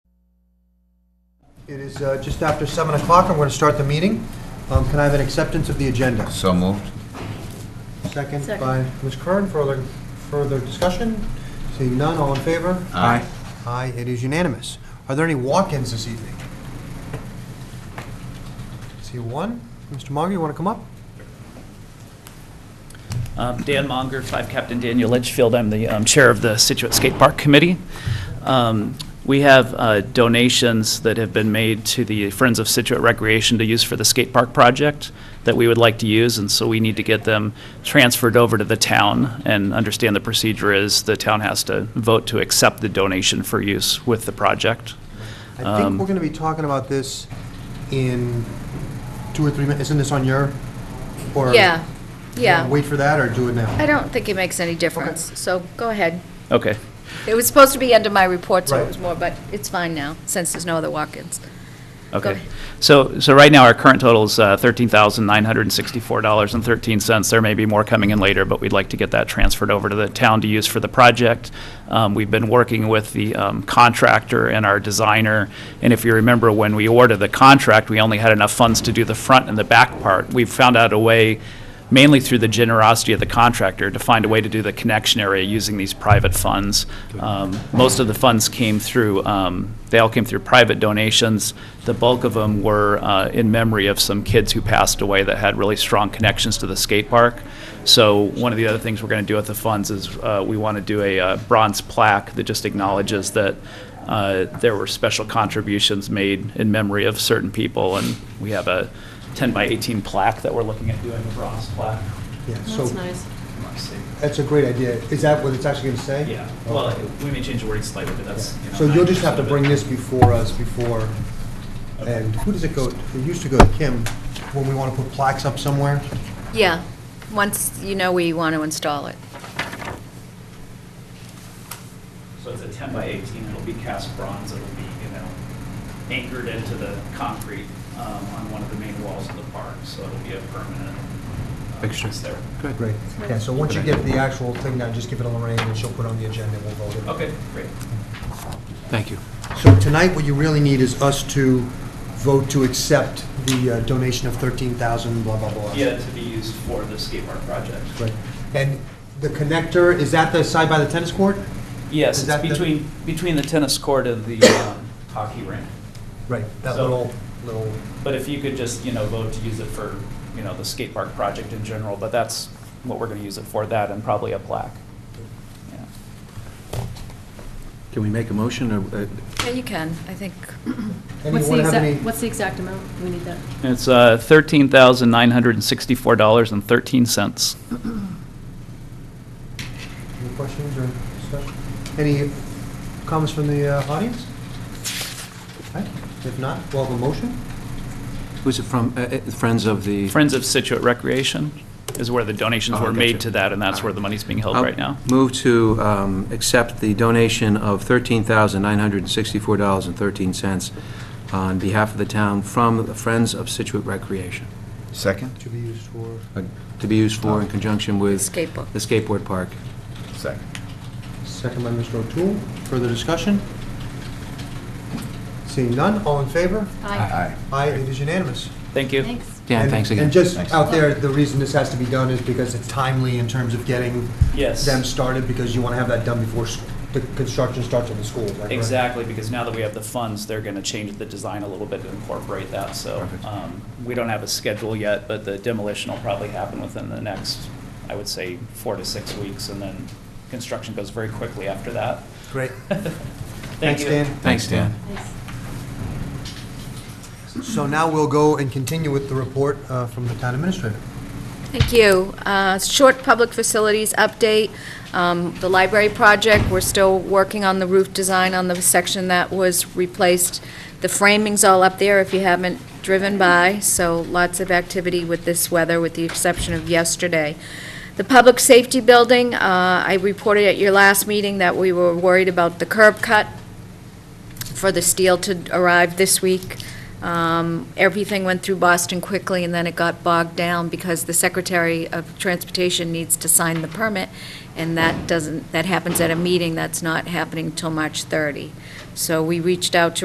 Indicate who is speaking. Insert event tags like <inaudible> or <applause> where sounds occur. Speaker 1: It is uh, just after 7 o'clock, I'm going to start the meeting. Um, Can I have an acceptance of the agenda?
Speaker 2: So moved.
Speaker 1: Second
Speaker 3: Second.
Speaker 1: by Ms. Curran, further, further discussion? Seeing none, all in favor?
Speaker 2: Aye.
Speaker 1: Aye, it is unanimous. Are there any walk-ins this evening? See one? Mr. Monger, you want to come up?
Speaker 4: Um, Dan Monger, 5 Captain Daniel Litchfield. I'm the um, Chair of the Situate Skate Park Committee. Um, We have uh, donations that have been made to the Friends of Situate Recreation to use for the skate park project that we would like to use, and so we need to get them transferred over to the town and understand the procedure is the town has to vote to accept the donation for use with the project.
Speaker 1: I think
Speaker 4: Um,
Speaker 1: we're going to be talking about this in two or three minutes. Isn't this on your? or-
Speaker 3: Yeah, yeah.
Speaker 1: Wait for that or do it now?
Speaker 3: I don't think it makes any difference, so go ahead.
Speaker 4: Okay.
Speaker 3: It was supposed to be under my report, so
Speaker 1: Right.
Speaker 3: it was more, but it's fine now, since there's no other walk-ins.
Speaker 4: Okay.
Speaker 3: ahead.
Speaker 4: So, so right now, our current total is uh, $13,964.13. There may be more coming in later, but we'd like to get that transferred over to the town to use for the project. Um, We've been working with the um, contractor and our designer, and if you remember, when we ordered the contract, we only had enough funds to do the front and the back part. We've found out a way, mainly through the generosity of the contractor, to find a way to do the connection area using these private funds. Um, Most of the funds came through, um, they all came through private donations. The bulk of them were uh, in memory of some kids who passed away that had really strong connections to the skate park. So one of the other things we're going to do with the funds is uh, we want to do a uh, bronze plaque that just acknowledges that uh, there were special contributions made in memory of certain people, and we have a 10 by 18 plaque that we're looking at doing, a bronze plaque.
Speaker 1: Yeah, so
Speaker 5: That's nice.
Speaker 1: That's a great idea. Is that what it's actually going to say?
Speaker 4: Yeah, well, we may change the wording slightly, but that's. you know,
Speaker 1: So you'll just have to
Speaker 4: 90% of it.
Speaker 1: bring this before us before, and who does it go, it used to go to Kim when we want to put plaques up somewhere?
Speaker 3: Yeah, once you know we want to install it.
Speaker 4: So it's a 10 by 18, it'll be cast bronze, it'll be, you know, anchored into the concrete um, on one of the main walls of the park, so it'll be a permanent uh,
Speaker 2: Fixture.
Speaker 4: piece there.
Speaker 1: Great. Yeah, so once you get the actual thing down, just give it to Lorraine and she'll put it on the agenda and we'll vote it.
Speaker 4: Okay, great.
Speaker 2: Thank you.
Speaker 1: So tonight, what you really need is us to vote to accept the uh, donation of 13,000, blah, blah, blah.
Speaker 4: Yeah, to be used for the skate park project.
Speaker 1: Great. And the connector, is that the side by the tennis court?
Speaker 4: Yes,
Speaker 1: Is
Speaker 4: it's
Speaker 1: that the-
Speaker 4: between, between the tennis court and the um, hockey rink.
Speaker 1: Right, that
Speaker 4: So-
Speaker 1: little, little,
Speaker 4: But if you could just, you know, vote to use it for, you know, the skate park project in general, but that's what we're going to use it for, that and probably a plaque. Yeah.
Speaker 2: Can we make a motion, or, uh,
Speaker 3: Yeah, you can, I think.
Speaker 5: What's the
Speaker 1: anyone have any?
Speaker 5: exact, what's the exact amount? We need that.
Speaker 4: It's uh, $13,964.13.
Speaker 1: Any questions or discussion? Any comments from the uh, audience? Okay, If not, we'll have a motion.
Speaker 2: who's it from, Uh, uh, Friends of the?
Speaker 4: Friends of Situate Recreation is where the donations
Speaker 2: Oh, I
Speaker 4: were made
Speaker 2: gotcha.
Speaker 4: to
Speaker 2: Oh.
Speaker 4: that, and that's where the money's being held
Speaker 2: I'll
Speaker 4: right now.
Speaker 2: Move to um, accept the donation of $13,964.13 on behalf of the town from the Friends of Situate Recreation,
Speaker 6: Second?
Speaker 1: To be used for,
Speaker 2: uh, to be used
Speaker 1: Oh.
Speaker 2: for in conjunction with
Speaker 3: Skateboard.
Speaker 2: the skateboard park.
Speaker 6: Second.
Speaker 1: second by Mr. O'Toole. Further discussion? Seeing none, all in favor?
Speaker 6: Aye.
Speaker 1: Aye, it is unanimous.
Speaker 4: Thank you.
Speaker 5: Thanks.
Speaker 2: Dan,
Speaker 1: And-
Speaker 2: thanks again.
Speaker 1: And just
Speaker 6: Thanks.
Speaker 1: out there, the reason this has to be done is because it's timely in terms of getting
Speaker 4: Yes.
Speaker 1: them started, because you want to have that done before s- the construction starts at the school, is that correct?
Speaker 4: Exactly, because now that we have the funds, they're going to change the design a little bit to incorporate that, so
Speaker 2: Perfect.
Speaker 4: um, we don't have a schedule yet, but the demolition will probably happen within the next, I would say, four to six weeks, and then construction goes very quickly after that.
Speaker 1: Great.
Speaker 4: <laughs> Thank
Speaker 1: Thanks,
Speaker 4: you.
Speaker 1: Dan.
Speaker 2: Thanks, Dan.
Speaker 5: Thanks.
Speaker 1: So now we'll go and continue with the report uh, from the town administrator.
Speaker 3: Thank you. Uh, Short public facilities update. Um, The library project, we're still working on the roof design on the section that was replaced. The framing's all up there if you haven't driven by, so lots of activity with this weather, with the exception of yesterday. The public safety building, uh, I reported at your last meeting that we were worried about the curb cut for the steel to arrive this week. Um, Everything went through Boston quickly, and then it got bogged down because the Secretary of Transportation needs to sign the permit, and that doesn't, that happens at a meeting, that's not happening till March 30. So we reached out to